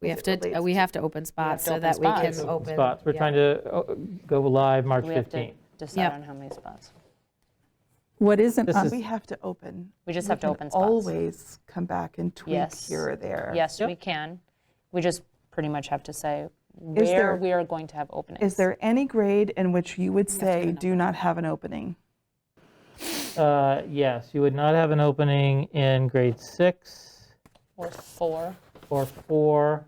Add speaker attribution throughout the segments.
Speaker 1: We have
Speaker 2: As it
Speaker 1: to, uh,
Speaker 2: relates
Speaker 1: we have to open spots so
Speaker 3: open
Speaker 1: that we
Speaker 3: spots. Open
Speaker 1: can open.
Speaker 4: spots. We're
Speaker 1: yeah.
Speaker 4: trying to oh, go live March
Speaker 3: We have to
Speaker 4: 15th.
Speaker 1: Yep.
Speaker 3: decide on how many spots.
Speaker 5: What isn't,
Speaker 4: This
Speaker 5: on-
Speaker 4: is-
Speaker 2: We have to open.
Speaker 3: We just have to
Speaker 2: can
Speaker 3: open spots.
Speaker 2: Always come back and tweak
Speaker 3: Yes.
Speaker 2: here or there.
Speaker 3: Yes,
Speaker 4: Yep.
Speaker 3: we can. We just pretty much have to say
Speaker 2: Is there-
Speaker 3: where we are going to have openings.
Speaker 2: Is there any grade in which you would say, do not have an opening?
Speaker 4: Uh, Yes, you would not have an opening in grade six
Speaker 3: Or four?
Speaker 4: or four,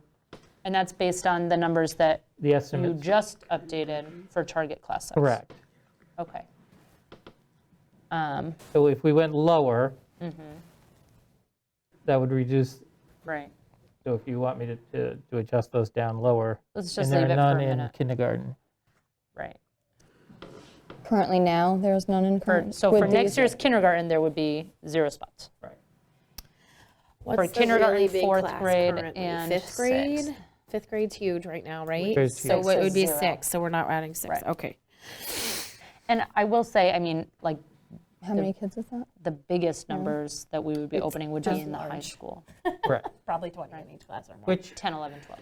Speaker 3: And that's based on the numbers that
Speaker 4: the
Speaker 3: you
Speaker 4: estimates,
Speaker 3: just updated for target class size?
Speaker 4: Mm-hmm. correct.
Speaker 3: Okay. Um,
Speaker 4: So if we went lower,
Speaker 3: Mm-hmm.
Speaker 4: that would reduce,
Speaker 3: Right.
Speaker 4: so if you want me to- to, to adjust those down lower.
Speaker 3: Let's just leave it
Speaker 4: And
Speaker 3: for
Speaker 4: there
Speaker 3: a
Speaker 4: are none in
Speaker 3: minute.
Speaker 4: kindergarten.
Speaker 3: Right.
Speaker 6: Currently now, there's none in
Speaker 3: For-
Speaker 6: current.
Speaker 3: So
Speaker 6: with
Speaker 3: for next
Speaker 6: these-
Speaker 3: year's kindergarten, there would be zero spots.
Speaker 1: What's
Speaker 3: for
Speaker 1: the
Speaker 3: kindergarten,
Speaker 1: really big
Speaker 3: fourth
Speaker 1: class
Speaker 3: grade,
Speaker 1: currently?
Speaker 3: and
Speaker 1: Fifth grade?
Speaker 3: sixth.
Speaker 1: Fifth grade's huge right now, right?
Speaker 4: grade's
Speaker 1: So
Speaker 3: huge.
Speaker 1: it
Speaker 3: Six
Speaker 1: would
Speaker 3: is
Speaker 1: be
Speaker 3: zero.
Speaker 1: six, so we're not adding six,
Speaker 3: Right.
Speaker 1: okay.
Speaker 3: And I will say, I mean, like,
Speaker 6: How many kids is that?
Speaker 3: the biggest numbers that we would be opening would be in the high school,
Speaker 4: Correct.
Speaker 7: probably 20 in each class or more.
Speaker 4: Which,
Speaker 3: 10, 11, 12.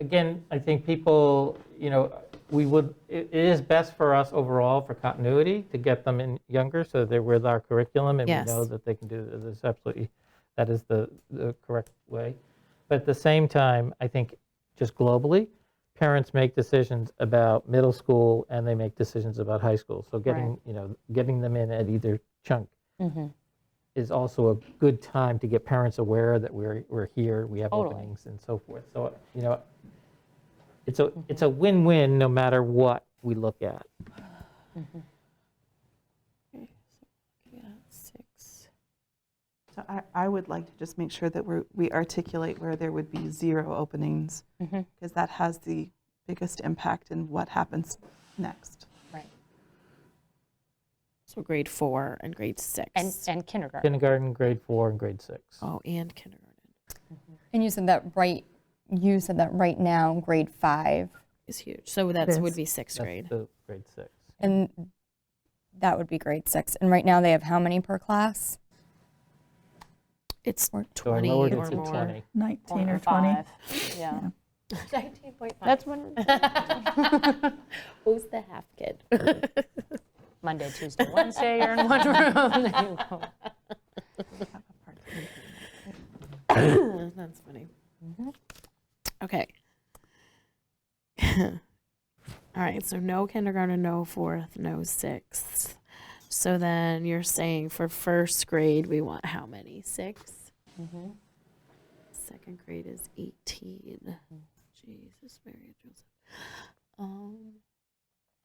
Speaker 4: again, I think people, you know, we would, it it is best for us overall for continuity to get them in younger so that they're with our curriculum and we
Speaker 1: Yes.
Speaker 4: know that they can do this It's absolutely, that is the, the correct way. But at the same time, I think just globally, parents make decisions about middle school and they make decisions about high school. So getting, you know, getting them in at either chunk is also a good time to get parents aware that we're, we're here, we have
Speaker 3: Totally.
Speaker 4: openings and so forth. So, you know, it's
Speaker 1: Mm-hmm.
Speaker 4: a, it's a win-win no matter what we look at.
Speaker 1: Six.
Speaker 2: So I, I would like to just make sure that we're, we articulate where there would be zero openings, because that has the biggest impact in what happens next.
Speaker 1: So grade four and grade six.
Speaker 3: And, and kindergarten.
Speaker 4: Kindergarten, grade four, and grade six.
Speaker 1: Oh, and kindergarten.
Speaker 6: And you said that right, you said that right now, grade five,
Speaker 1: is huge. So that would be sixth
Speaker 4: That's
Speaker 1: grade.
Speaker 4: the Grade six.
Speaker 6: and that would be grade six. And right now, they have how many per class?
Speaker 1: It's
Speaker 6: Or-
Speaker 4: So I
Speaker 1: 20
Speaker 4: lowered
Speaker 1: or
Speaker 4: it to
Speaker 1: more.
Speaker 4: 20.
Speaker 5: 19 or 20?
Speaker 3: Yeah.
Speaker 7: That's when. Who's the half kid?
Speaker 3: Monday, Tuesday, Wednesday, you're in one room. There you go.
Speaker 1: That's funny.
Speaker 2: Mm-hmm.
Speaker 1: Okay. All right, so no kindergarten, no fourth, no sixth. So then you're saying for first grade, we want how many? Six? Second grade is 18. Jesus, Mary, and Joseph. Um,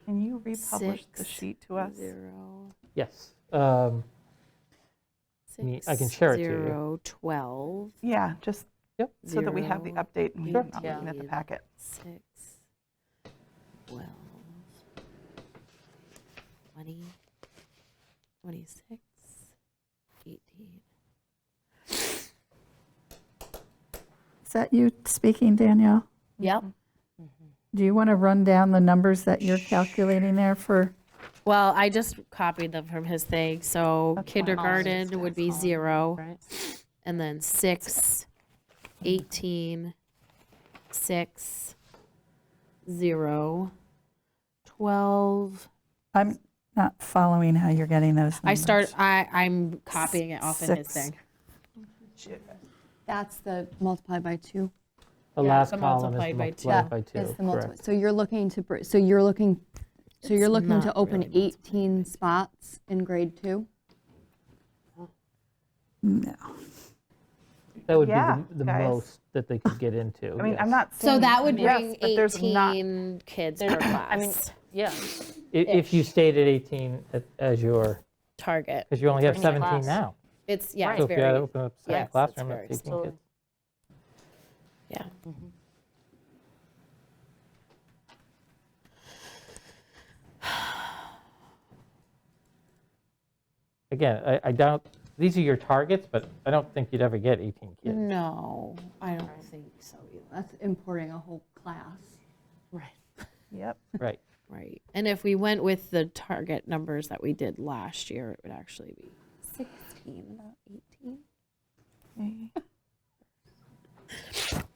Speaker 2: Can you republish the
Speaker 1: Six,
Speaker 2: sheet to us?
Speaker 1: Zero,
Speaker 4: Yes. Um, Me-
Speaker 1: six,
Speaker 4: I can share it to you.
Speaker 1: zero, 12,
Speaker 2: Yeah, just so that we have the
Speaker 1: zero,
Speaker 2: update and we're
Speaker 1: Sure.
Speaker 2: not looking at the
Speaker 1: Yeah.
Speaker 2: packet.
Speaker 1: six, twelve, twenty, twenty-six, eighteen.
Speaker 5: Is that you speaking, Danielle? Mm-hmm.
Speaker 1: Yep.
Speaker 5: Do you want to run down the numbers that you're calculating there for?
Speaker 1: Well, I just copied them from his thing, so kindergarten would be zero,
Speaker 3: Right?
Speaker 1: and then six, eighteen, six, zero, twelve.
Speaker 5: I'm not following how you're getting those numbers.
Speaker 1: I start, I, I'm copying it off of his
Speaker 5: Mm. Six.
Speaker 1: thing.
Speaker 6: That's the multiplied by two.
Speaker 4: The
Speaker 1: Yeah,
Speaker 4: last
Speaker 1: so
Speaker 4: column is
Speaker 1: multiplied by two.
Speaker 4: multiplied by two,
Speaker 6: It's the multiplied.
Speaker 4: correct.
Speaker 8: So you're looking to, br- so you're looking, so you're
Speaker 1: It's
Speaker 8: looking to
Speaker 1: not
Speaker 8: open
Speaker 1: really
Speaker 8: 18 spots in grade two?
Speaker 5: No.
Speaker 4: That would be
Speaker 2: Yeah,
Speaker 4: the- the
Speaker 2: guys.
Speaker 4: most that they could get into.
Speaker 2: I mean, I'm
Speaker 4: Oh, yes.
Speaker 2: not saying.
Speaker 1: So that would
Speaker 2: yes,
Speaker 1: bring
Speaker 2: but there's not-
Speaker 1: 18 kids per
Speaker 3: I mean,
Speaker 1: class
Speaker 3: yeah.
Speaker 4: I- If you stayed at 18 at- as your,
Speaker 1: target.
Speaker 4: because you only have
Speaker 3: First class.
Speaker 4: 17 now.
Speaker 1: It's, yeah,
Speaker 4: So
Speaker 1: it's
Speaker 4: if you had
Speaker 1: very,
Speaker 4: opened up
Speaker 1: yes,
Speaker 4: second
Speaker 1: it's
Speaker 4: classroom,
Speaker 1: very
Speaker 4: it's 18
Speaker 3: small.
Speaker 4: kids.
Speaker 1: yeah.
Speaker 4: Again, I- I doubt, these are your targets, but I don't think you'd ever get 18 kids.
Speaker 1: Mm. No, I don't think so either.
Speaker 8: That's importing a whole class.
Speaker 2: Yep.
Speaker 4: Right.
Speaker 1: Right. And if we went with the target numbers that we did last year, it would actually be
Speaker 8: 16, not 18.